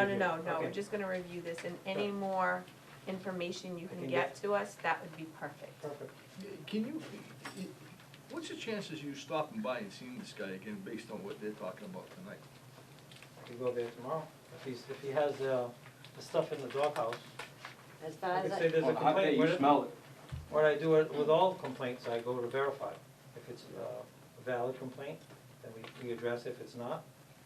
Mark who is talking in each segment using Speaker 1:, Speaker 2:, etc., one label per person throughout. Speaker 1: No, no, no, no, we're
Speaker 2: Okay.
Speaker 1: just gonna review this, and any more information you can
Speaker 2: can
Speaker 1: get to us, that would be perfect.
Speaker 2: Perfect.
Speaker 3: Can you, what's the chances you stopping by and seeing this guy again based on what they're talking about tonight?
Speaker 2: We go there tomorrow. If he's, if he has, uh, the stuff in the doghouse,
Speaker 4: As far
Speaker 2: I
Speaker 4: as
Speaker 2: can say
Speaker 4: I,
Speaker 2: there's a
Speaker 5: On a hot day,
Speaker 2: complaint.
Speaker 5: you
Speaker 2: What-
Speaker 5: smell it.
Speaker 2: What I do with all complaints, I go to verify. If it's uh, a valid complaint, then we, we address it. If it's not,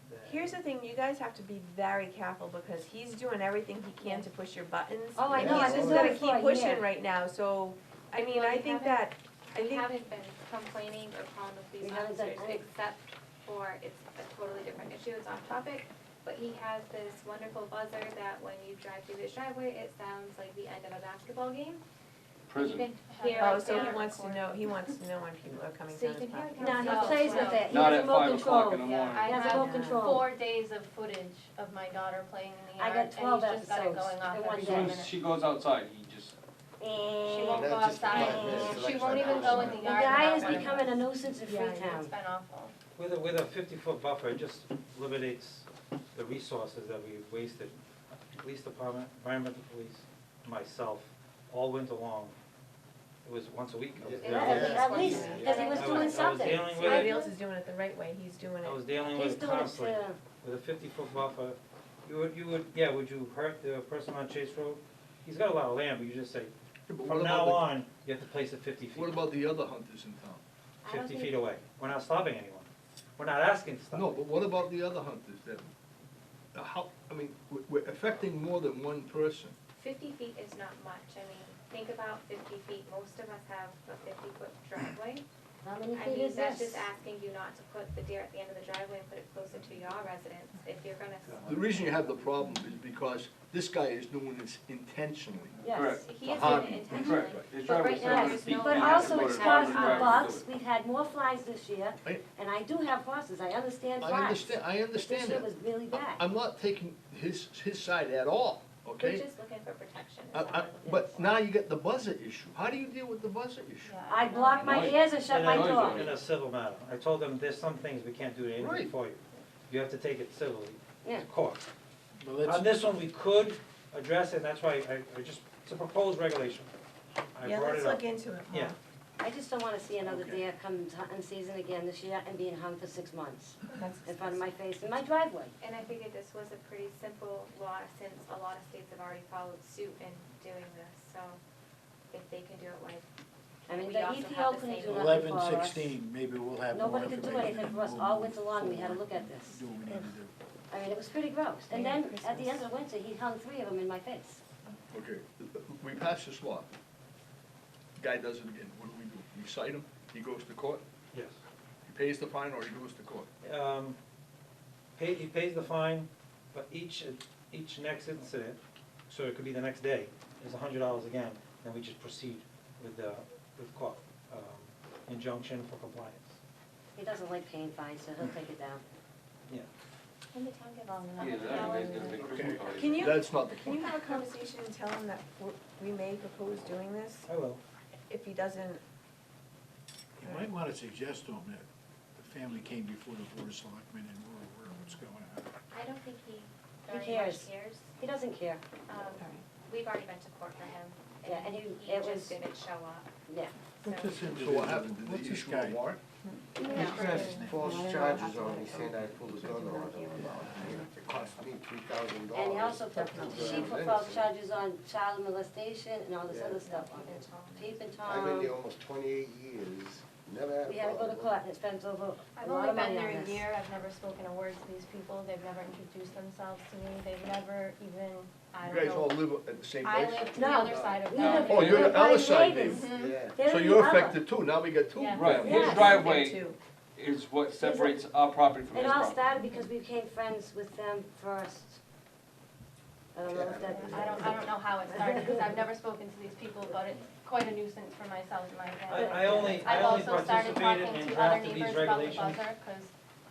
Speaker 2: then.
Speaker 1: Here's the thing, you guys have to be very careful, because he's doing everything he can to push your buttons.
Speaker 4: Oh, I
Speaker 3: know,
Speaker 1: He's
Speaker 3: I've
Speaker 1: just
Speaker 3: been doing
Speaker 1: gotta
Speaker 3: it
Speaker 4: for a
Speaker 1: keep pushing
Speaker 4: year.
Speaker 1: right now, so, I mean,
Speaker 6: Well,
Speaker 1: I
Speaker 6: you
Speaker 1: think
Speaker 6: haven't-
Speaker 1: that, I
Speaker 6: We
Speaker 1: think,
Speaker 6: haven't been complaining or calling the police
Speaker 4: We haven't done
Speaker 6: officers,
Speaker 4: any.
Speaker 6: except for, it's a totally different issue, it's off topic. But he has this wonderful buzzer that when you drive through his driveway, it sounds like the end of a basketball game. And you
Speaker 5: Prison.
Speaker 6: can hear
Speaker 1: oh,
Speaker 6: it
Speaker 1: so he
Speaker 6: down.
Speaker 1: wants to know, he wants to know when people are coming
Speaker 6: So you
Speaker 1: down his
Speaker 6: can hear
Speaker 1: property.
Speaker 6: it
Speaker 4: no,
Speaker 6: No,
Speaker 4: he plays with it, he
Speaker 5: Not
Speaker 4: has
Speaker 5: at
Speaker 4: no
Speaker 5: five o'clock in the
Speaker 4: control.
Speaker 5: morning.
Speaker 4: He has
Speaker 7: I
Speaker 4: no
Speaker 7: have
Speaker 4: control.
Speaker 7: four days of footage of my daughter playing in the
Speaker 4: I
Speaker 7: yard,
Speaker 4: got
Speaker 7: and he's
Speaker 4: 12
Speaker 7: just got it
Speaker 4: episodes
Speaker 7: going off
Speaker 4: in one
Speaker 7: every
Speaker 4: day.
Speaker 5: As soon
Speaker 7: minute.
Speaker 5: as she goes outside, he just,
Speaker 7: She
Speaker 4: And
Speaker 7: won't go
Speaker 3: That's just five
Speaker 7: outside,
Speaker 3: minutes, it's
Speaker 7: she
Speaker 3: like
Speaker 7: won't
Speaker 3: five
Speaker 7: even go in
Speaker 3: hours.
Speaker 7: the
Speaker 4: The
Speaker 7: yard.
Speaker 4: guy
Speaker 7: without
Speaker 4: is
Speaker 7: running.
Speaker 4: becoming a nuisance in
Speaker 1: Yeah,
Speaker 4: Freetown.
Speaker 7: It's been awful.
Speaker 2: With a, with a fifty-foot buffer, it just eliminates the resources that we've wasted. Police department, environmental police, myself, all winter long. It was once a week. I was
Speaker 4: At
Speaker 2: down
Speaker 4: least-
Speaker 2: there.
Speaker 4: At least, because he was
Speaker 2: I
Speaker 4: doing
Speaker 2: I was
Speaker 4: something.
Speaker 2: dealing with
Speaker 1: Somebody
Speaker 2: it.
Speaker 1: else is doing it the right way, he's doing
Speaker 2: I was
Speaker 1: it.
Speaker 2: dealing
Speaker 4: He's
Speaker 2: with a
Speaker 4: doing it,
Speaker 2: conflict.
Speaker 4: uh,
Speaker 2: with a fifty-foot buffer, you would, you would, yeah, would you hurt the person on Chase Road? He's got a lot of land, but you just say, from now on, you have to place it fifty feet,
Speaker 3: What about the other hunters in town?
Speaker 4: I don't
Speaker 2: fifty feet
Speaker 4: think,
Speaker 2: away. We're not stopping anyone. We're not asking to stop.
Speaker 3: No, but what about the other hunters that, uh, how, I mean, we- we're affecting more than one person.
Speaker 6: Fifty feet is not much, I mean, think about fifty feet, most of us have a fifty foot driveway.
Speaker 4: how many
Speaker 6: I
Speaker 4: feet
Speaker 6: mean,
Speaker 4: is
Speaker 6: that's
Speaker 4: this?
Speaker 6: just asking you not to put the deer at the end of the driveway and put it closer to your residence, if you're gonna.
Speaker 3: The reason you have the problem is because this guy is doing this intentionally.
Speaker 4: Yes.
Speaker 5: correct.
Speaker 6: He
Speaker 5: The
Speaker 6: is
Speaker 5: hobby.
Speaker 6: doing it intentionally.
Speaker 5: Correct. His
Speaker 6: But
Speaker 5: driveway's
Speaker 6: right now,
Speaker 5: seven
Speaker 6: there's
Speaker 5: feet,
Speaker 6: no.
Speaker 5: he
Speaker 4: But
Speaker 5: has to
Speaker 4: also
Speaker 5: go
Speaker 4: it
Speaker 5: to the
Speaker 4: stops
Speaker 5: driver
Speaker 4: the
Speaker 5: and drive to
Speaker 4: bugs,
Speaker 5: do
Speaker 4: we've had more flies this year,
Speaker 3: I-
Speaker 4: and I do have horses, I understand flies.
Speaker 3: I understand, I understand
Speaker 4: This year
Speaker 3: that.
Speaker 4: was really
Speaker 3: I-
Speaker 4: bad.
Speaker 3: I'm not taking his, his side at all,
Speaker 6: We're
Speaker 3: okay?
Speaker 6: just looking for protection. is
Speaker 3: I,
Speaker 6: all
Speaker 3: I,
Speaker 6: we're looking
Speaker 3: but
Speaker 6: for.
Speaker 3: now you get the buzzer issue. How do you deal with the buzzer issue?
Speaker 7: Yeah,
Speaker 4: I
Speaker 7: know.
Speaker 4: block my
Speaker 5: Noise.
Speaker 4: ears and shut
Speaker 2: In
Speaker 4: my
Speaker 2: a-
Speaker 5: noise
Speaker 4: door.
Speaker 5: already.
Speaker 2: In a civil matter. I told them, there's some things we can't do anything
Speaker 3: Right.
Speaker 2: for you. You have to take it civilly,
Speaker 4: Yeah.
Speaker 2: to court. On this one, we could address it, and that's why I, I just, it's a proposed regulation. I
Speaker 1: Yeah,
Speaker 2: brought
Speaker 1: let's
Speaker 2: it up.
Speaker 1: look into it more.
Speaker 2: Yeah.
Speaker 4: I just don't wanna see another
Speaker 3: Okay.
Speaker 4: deer come t- in season again this year and being hung for six months
Speaker 1: That's
Speaker 4: in front of my face in my driveway.
Speaker 6: And I figured this was a pretty simple law since a lot of states have already followed suit in doing this, so if they can do it, why?
Speaker 4: I mean,
Speaker 6: We
Speaker 4: the
Speaker 6: also
Speaker 4: EPO
Speaker 6: have the
Speaker 4: couldn't
Speaker 6: same
Speaker 4: do nothing
Speaker 8: Eleven
Speaker 4: for us.
Speaker 8: sixteen, maybe we'll have more
Speaker 4: Nobody
Speaker 8: information.
Speaker 4: could do anything for us
Speaker 8: and
Speaker 4: all
Speaker 8: we'll
Speaker 4: winter long, we had to look at this.
Speaker 8: Do what we need to do.
Speaker 4: I mean, it was pretty gross. And
Speaker 1: Merry
Speaker 4: then, at the end
Speaker 1: Christmas.
Speaker 4: of winter, he hung three of them in my face.
Speaker 3: Okay, we pass this law. Guy does it again. What do we do? We cite him, he goes to court,
Speaker 2: Yes.
Speaker 3: he pays the fine or he goes to court.
Speaker 2: um, pay, he pays the fine, but each, each next incident, so it could be the next day, is a hundred dollars again, then we just proceed with the, with court, um, injunction for compliance,
Speaker 4: He doesn't like paying fines, so he'll take it down.
Speaker 2: yeah.
Speaker 6: When the town gets.
Speaker 7: Long enough.
Speaker 5: Yeah, that guy's gonna make Christmas parties.
Speaker 1: Can you,
Speaker 3: That's not the
Speaker 1: can you
Speaker 3: point.
Speaker 1: have a conversation and tell him that w- we may propose doing this?
Speaker 2: I will.
Speaker 1: If he doesn't,
Speaker 8: You might wanna suggest to him that the family came before the board of selectmen and we're aware of what's going on.
Speaker 6: I don't think he
Speaker 4: He
Speaker 6: very much
Speaker 4: cares.
Speaker 6: cares.
Speaker 4: He doesn't care.
Speaker 6: Um,
Speaker 1: all right.
Speaker 6: we've already been to court for him,
Speaker 4: Yeah, and
Speaker 6: and he
Speaker 4: he-
Speaker 6: he
Speaker 4: it
Speaker 6: just
Speaker 4: was-
Speaker 6: didn't show up,
Speaker 4: Yeah.
Speaker 6: so.
Speaker 8: What's this
Speaker 3: So what
Speaker 8: individual,
Speaker 3: happened? Did
Speaker 8: what's
Speaker 3: they
Speaker 8: this
Speaker 3: issue a
Speaker 8: guy?
Speaker 3: warrant?
Speaker 8: He's Chris.
Speaker 9: false
Speaker 1: Yeah.
Speaker 9: charges on me, saying I pulled a gun on him, it cost me three thousand dollars. uh,
Speaker 4: And he also put, she put false charges on child molestation and all this other stuff on it. Peep and
Speaker 9: I've been there
Speaker 4: Tom,
Speaker 9: almost twenty-eight years, never had a problem.
Speaker 4: Um, we had to go to court and spend over
Speaker 7: I've
Speaker 4: a lot
Speaker 7: only
Speaker 4: of
Speaker 7: been
Speaker 4: money
Speaker 7: there
Speaker 4: on
Speaker 7: a
Speaker 4: this.
Speaker 7: year, I've never spoken a word to these people, they've never introduced themselves to me, they've never even, I
Speaker 3: You
Speaker 7: don't
Speaker 3: guys all
Speaker 7: know.
Speaker 3: live at the same
Speaker 7: I
Speaker 3: place?
Speaker 7: live to the other side of
Speaker 4: We
Speaker 7: town. Mm-hmm.
Speaker 4: live-
Speaker 3: Oh, you're
Speaker 4: we're
Speaker 3: the other
Speaker 4: right
Speaker 3: side
Speaker 4: neighbors.
Speaker 9: Yeah.
Speaker 4: They're
Speaker 3: So
Speaker 4: in
Speaker 3: you're
Speaker 4: the other.
Speaker 3: affected too, now we got two.
Speaker 7: Yeah.
Speaker 5: Right, his
Speaker 4: Yes.
Speaker 5: driveway
Speaker 1: too.
Speaker 5: is what separates our property from his
Speaker 4: It all
Speaker 5: property.
Speaker 4: started because we became friends with them first. I don't know if that.
Speaker 7: I don't, I don't know how it started, because I've never spoken to these people about it, it's quite a nuisance for myself and my
Speaker 2: I,
Speaker 7: family.
Speaker 2: I only, I
Speaker 7: I've
Speaker 2: only
Speaker 7: also started
Speaker 2: participated and
Speaker 7: talking to other
Speaker 2: drafted these
Speaker 7: neighbors about the
Speaker 2: regulations.
Speaker 7: buzzer, because,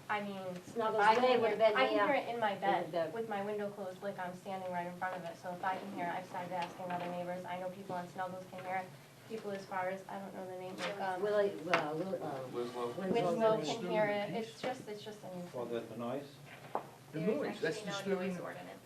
Speaker 7: I mean,
Speaker 4: Snuggles
Speaker 7: I
Speaker 4: Bay
Speaker 7: can
Speaker 4: would've
Speaker 7: hear,
Speaker 4: been uh,
Speaker 7: I can
Speaker 4: there.
Speaker 7: hear it in my
Speaker 4: Would've been.
Speaker 7: bed with my window closed, like I'm standing right in front of it, so if I can hear, it, I've started asking other neighbors, I know people on Snuggles can hear, it. people as far as, I don't know the name, like, um,
Speaker 4: uh, Willie, well, Will, uh,
Speaker 5: Winslow.
Speaker 4: Winslow.
Speaker 7: Winslow can hear it, it's just, it's just a
Speaker 2: Well, the,
Speaker 7: nuisance.
Speaker 2: the noise,
Speaker 3: The
Speaker 6: There's
Speaker 3: noise, that's disturbing.
Speaker 6: actually no noise ordinance